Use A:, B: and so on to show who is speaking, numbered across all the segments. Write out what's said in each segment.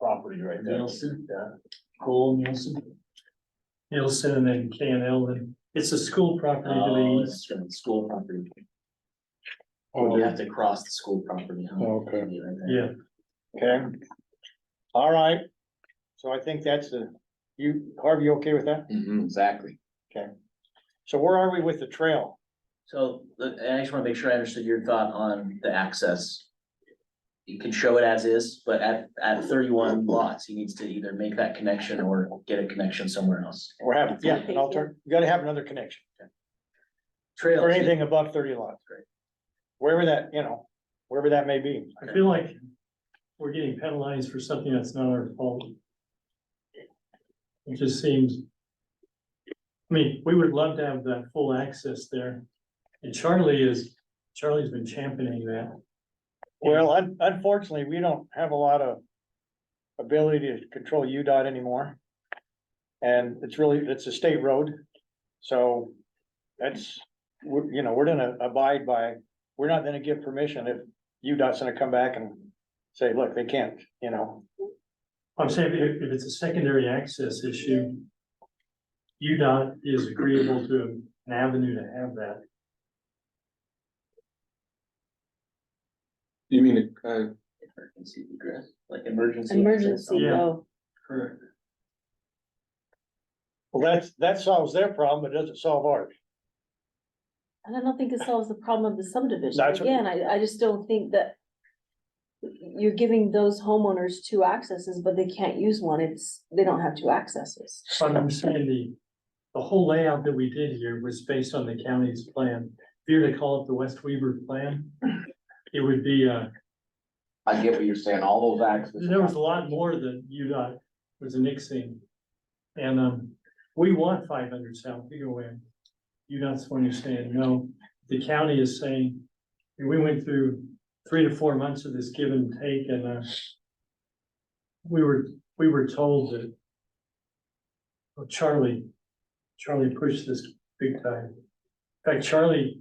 A: property right there.
B: Nielsen.
A: Yeah.
B: Cole Nielsen.
C: Nielsen and then K and L, and it's a school property to
B: Oh,
C: the
B: it's from the school property.
D: Oh,
C: Oh,
B: We'll
D: yeah,
B: have to cross the school property. huh?
D: okay.
B: Right there.
C: yeah,
D: Okay. All right, so I think that's the, you, Harvey, you okay with that?
B: Mhm, exactly.
D: So where are we with the trail?
B: So, the- and I just wanna make sure I understood your thought on the access. You can show it as is, but at, at thirty-one lots, he needs to either make that connection or get a connection somewhere else.
D: We're having, yeah, an alter, you gotta have another connection,
B: Trails.
D: or anything above thirty lots.
B: Right.
D: Wherever that, you know, wherever that may be.
C: I feel like we're getting penalized for something that's not our fault. It just seems. I mean, we would love to have that full access there, and Charlie is, Charlie's been championing that.
D: Well, un- unfortunately, we don't have a lot of ability to control UDOT anymore. And it's really, it's a state road, so that's, we're- you know, we're gonna abide by, we're not gonna give permission if UDOT's gonna come back and say, look, they can't, you know,
C: I'm saying if, if it's a secondary access issue. UDOT is agreeable to an avenue to have that.
A: You mean, uh,
B: Emergency egress, like emergency.
E: Emergency,
C: Yeah.
E: though.
B: Correct.
D: well, that's, that solves their problem, but it doesn't solve ours.
E: And I don't think it solves the problem of the subdivision.
D: That's what-
E: Again, I, I just don't think that you're giving those homeowners two accesses, but they can't use one. It's, they don't have two accesses.
C: But I'm saying the, the whole layout that we did here was based on the county's plan. If you were to call it the West Weaver plan, it would be, uh,
F: I get what you're saying, all those access.
C: there was a lot more than UDOT was annexing. And, um, we want five hundred South Eagle You UDOT's the one who's saying, no, the county is saying, and we went through three to four months of this give and take and, uh, we were, we were told that well, Charlie, Charlie pushed this big time. In fact, Charlie,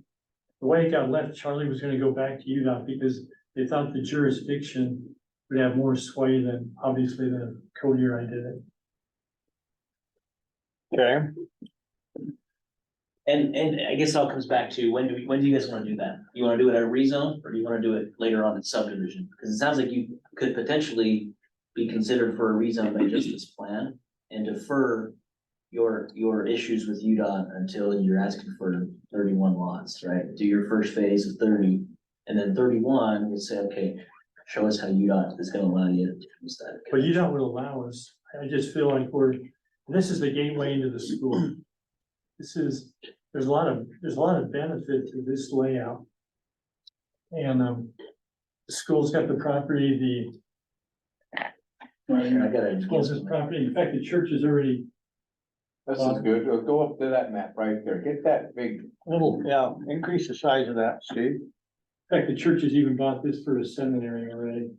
C: the way it got left, Charlie was gonna go back to UDOT because they thought the jurisdiction would have more sway than, obviously, than Cody or I did it.
D: Okay,
B: And, and I guess it all comes back to, when do, we- when do you guys wanna do that? You wanna do it at a rezone, or do you wanna do it later on in subdivision? Cause it sounds like you could potentially be considered for a rezone by just this plan and defer your, your issues with UDOT until you're asking for thirty-one lots, right? Do your first phase of thirty, and then thirty-one, you'll say, okay, show us how UDOT is gonna allow you to use that.
C: But UDOT would allow us, I just feel like we're, this is the gateway into the school. This is, there's a lot of, there's a lot of benefit to this layout. And, um, the school's got the property, the
B: I gotta.
C: school's got property, in fact, the church is already,
F: This is good, Go- Uh, go up to that map right there, get that big,
D: little, yeah, increase the size of that, Steve.
C: in fact, the church has even bought this for a seminary already.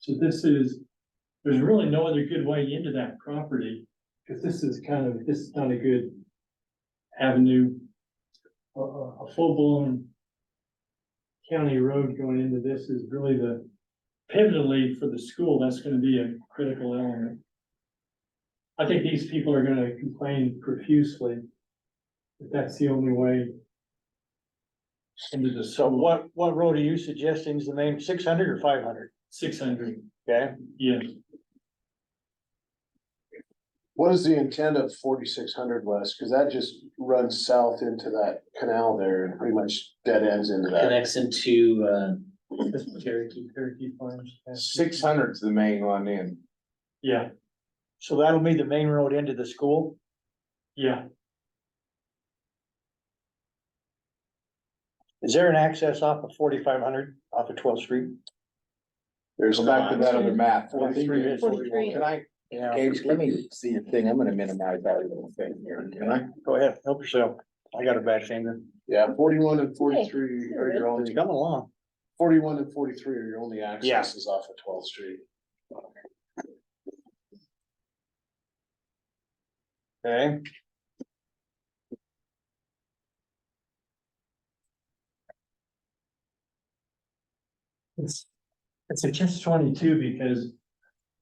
C: So this is, there's really no other good way into that property, because this is kind of, this is not a good avenue. A, a, a full-blown county road going into this is really the pivotally for the school, that's gonna be a critical element. I think these people are gonna complain profusely, that that's the only way into the
D: So what, what road are you suggesting is the main, six hundred or five hundred?
C: six hundred,
D: Okay,
C: yeah.
G: What is the intent of forty-six hundred west? Cause that just runs south into that canal there and pretty much dead ends into that.
B: Connects into, uh,
C: Cherokee, Cherokee Farms.
F: six hundred's the main one in.
C: Yeah,
D: so that'll be the main road into the school?
C: yeah,
D: Is there an access off of forty-five hundred, off of twelfth street?
G: There's
F: Go back to
G: not,
F: that other map.
D: Well, I think we did.
E: Forty-three.
F: Can I,
D: Yeah.
F: Gage, let me see a thing, I'm gonna minimize that little thing here, can I?
D: Go ahead, help yourself. I got a bad finger.
G: yeah, forty-one and forty-three are your
D: It's
G: only,
D: coming along.
G: forty-one and forty-three are your only
D: Yeah.
G: accesses off of twelfth street.
D: Okay,
C: it's, it's a catch twenty-two because